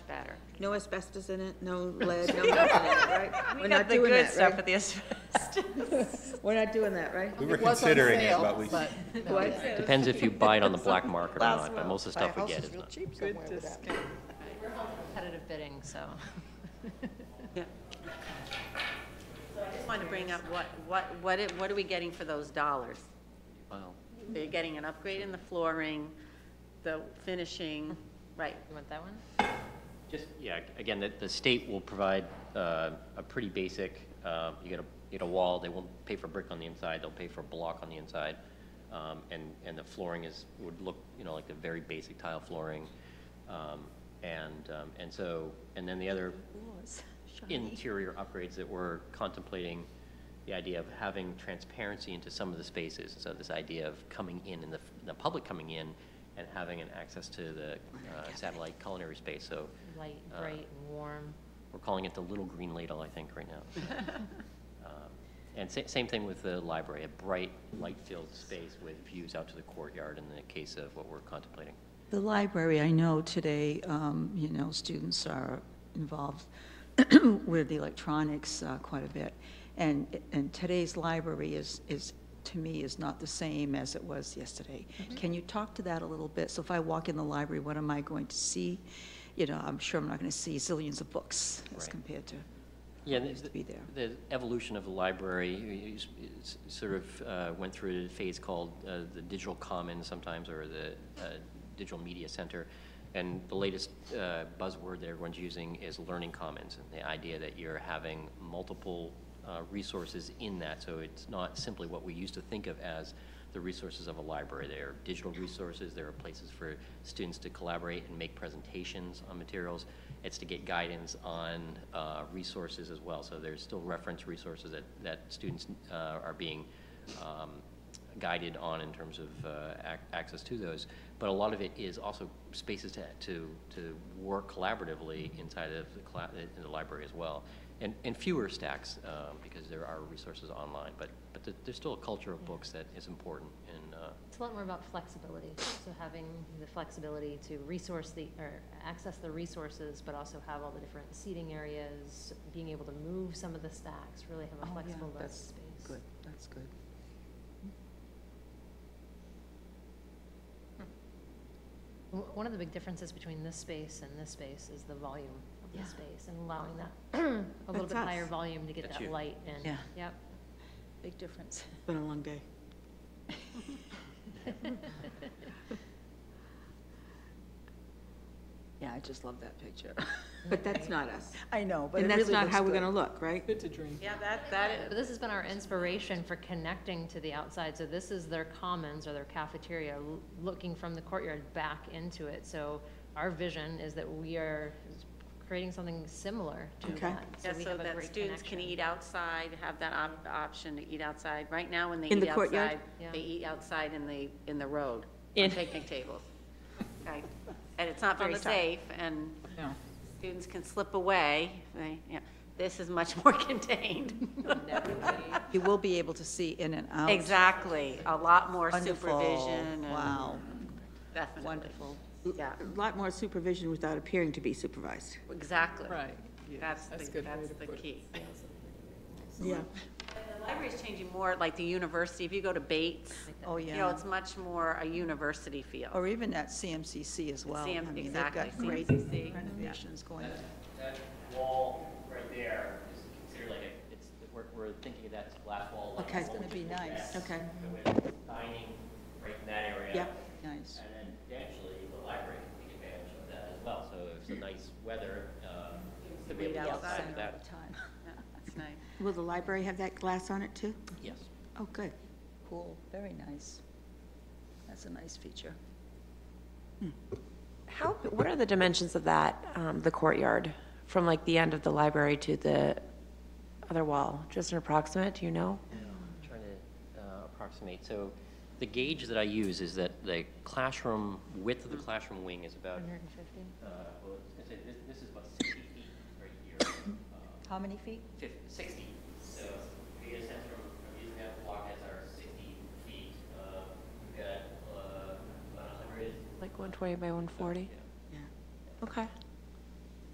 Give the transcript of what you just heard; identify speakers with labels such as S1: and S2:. S1: no asbestos in it, no lead, no nothing in it, right? We're not doing that, right?
S2: the asbestos.
S1: We're not doing that, right?
S3: We were considering it, but we,
S1: What?
S4: Depends if you buy it on the black market or
S2: Last
S4: not, but
S2: one.
S4: most of the
S3: my
S4: stuff we
S3: house
S4: get
S3: is
S4: is
S3: real
S4: not.
S3: cheap somewhere with that.
S2: Competitive bidding, so.
S1: Yeah.
S2: I just want to bring up what, what, what, it- what are we getting for those dollars?
S4: Wow.
S2: So You're getting an upgrade in the flooring, the finishing, right. You want that one?
S4: Just, yeah, again, the, the state will provide uh, a pretty basic, uh, you get a, you get a wall, they won't pay for brick on the inside, they'll pay for block on the inside. Um, And, and the flooring is, would look, you know, like the very basic tile flooring. Um, And, um, and so, and then the other interior upgrades that we're contemplating, the idea of having transparency into some of the spaces. So this idea of coming in and the, the public coming in and having an access to the uh, satellite culinary space. So
S5: Light,
S4: Uh,
S5: bright, and warm.
S4: we're calling it the Little Green Ladle, I think, right now. Um, And sa- same thing with the library, a bright, light-filled space with views out to the courtyard in the case of what we're contemplating.
S6: The library, I know today, um, you know, students are involved with the electronics uh, quite a bit. And, and today's library is, is, to me, is not the same as it was yesterday.
S2: Mm-hmm.
S6: Can you talk to that a little bit? So if I walk in the library, what am I going to see? You know, I'm sure I'm not going to see zillions of books as
S4: Right.
S6: compared to,
S4: Yeah,
S6: that
S4: the-
S6: used to be there.
S4: The evolution of the library is- is- sort of uh, went through a phase called uh, the digital commons sometimes, or the uh, digital media center. And the latest uh, buzzword that everyone's using is learning commons, and the idea that you're having multiple uh, resources in that. So it's not simply what we used to think of as the resources of a library. There are digital resources, there are places for students to collaborate and make presentations on materials. It's to get guidance on uh, resources as well. So there's still reference resources that, that students uh, are being um, guided on in terms of uh, ac- access to those. But a lot of it is also spaces to, to, to work collaboratively inside of the, cla- in the library as well. And, and fewer stacks, um, because there are resources online, but, but there- there's still a culture of books that is important in, uh,
S5: It's a lot more about flexibility, so having the flexibility to resource the, or access the resources, but also have all the different seating areas, being able to move some of the stacks, really have a flexible learning space.
S3: Good, Oh, that's good.
S5: Hmm. W- One of the big differences between this space and this space is the volume of
S1: Yeah.
S5: the space, and allowing that, a little
S1: That's
S5: bit higher
S1: us.
S5: volume to get
S4: That's
S5: that
S4: you.
S5: light in.
S6: Yeah.
S5: Yep.
S6: big difference.
S1: It's been a long day.
S6: Yeah, I just love that picture.
S1: But that's not us.
S6: I know, but it
S1: And
S6: really
S1: that's
S6: looks good.
S1: not how we're gonna look, right?
S2: Yeah, that, that is.
S5: But this has been our inspiration for connecting to the outside, so this is their commons or their cafeteria, l- looking from the courtyard back into it. So our vision is that we are creating something similar to
S1: Okay.
S5: that.
S2: Yeah,
S5: we
S2: so
S5: have a
S2: that
S5: great
S2: students can
S5: connection.
S2: eat outside, have that op- option to eat outside. Right now, when they
S1: In the
S2: eat
S1: courtyard?
S2: outside,
S5: Yeah.
S2: they eat outside in the, in the road, on picnic tables. Right? And it's not very safe, and students can slip away. They, yeah. This is much more contained.
S6: You will be able to see in and out.
S2: Exactly, a lot more
S6: Wonderful.
S2: supervision and,
S6: Wow,
S2: definitely.
S6: wonderful.
S2: Yeah,
S1: A lot more supervision without appearing to be supervised.
S2: exactly.
S7: Right. yeah,
S2: That's the,
S7: that's a good way
S2: that's
S7: to
S2: the
S7: put it.
S2: key.
S1: Yeah.
S2: The library's changing more like the university, if you go to Bates.
S6: Oh,
S2: You know,
S6: yeah.
S2: it's much more a university feel.
S6: Or even at CMCC as well. I
S2: CM
S6: mean, they've got
S2: exactly,
S6: great
S2: CMCC.
S6: renovations going.
S4: That wall right there is considered like a, it's, we're, we're thinking of that as glass wall. like
S6: Okay. It's
S4: what
S6: gonna
S4: we
S6: be
S4: look at.
S6: nice.
S1: Okay.
S4: So we have Dining right in that area.
S1: Yeah.
S6: Nice.
S4: And then eventually, the library can take advantage of that as well. So if it's a nice weather, um, to be able to
S2: Read
S4: get
S2: outside.
S4: outside of that.
S6: Time.
S2: Yeah, That's nice.
S1: Will the library have that glass on it too?
S4: Yes.
S1: Oh, good.
S6: Cool, very nice. That's a nice feature.
S8: How, what are the dimensions of that, um, the courtyard, from like the end of the library to the other wall? Just an approximate, do you know?
S4: Trying to uh, approximate. So the gauge that I use is that the classroom, width of the classroom wing is about,
S5: 150?
S4: uh, well, it's- it's- this, this is about 60 feet right here. Um,
S6: How many feet?
S4: fif- 60. So we just have from, from using that block as our 60 feet, uh, we've got, uh, about 100.
S8: Like 120 by 140?
S4: Yeah.
S1: Yeah.
S8: Okay.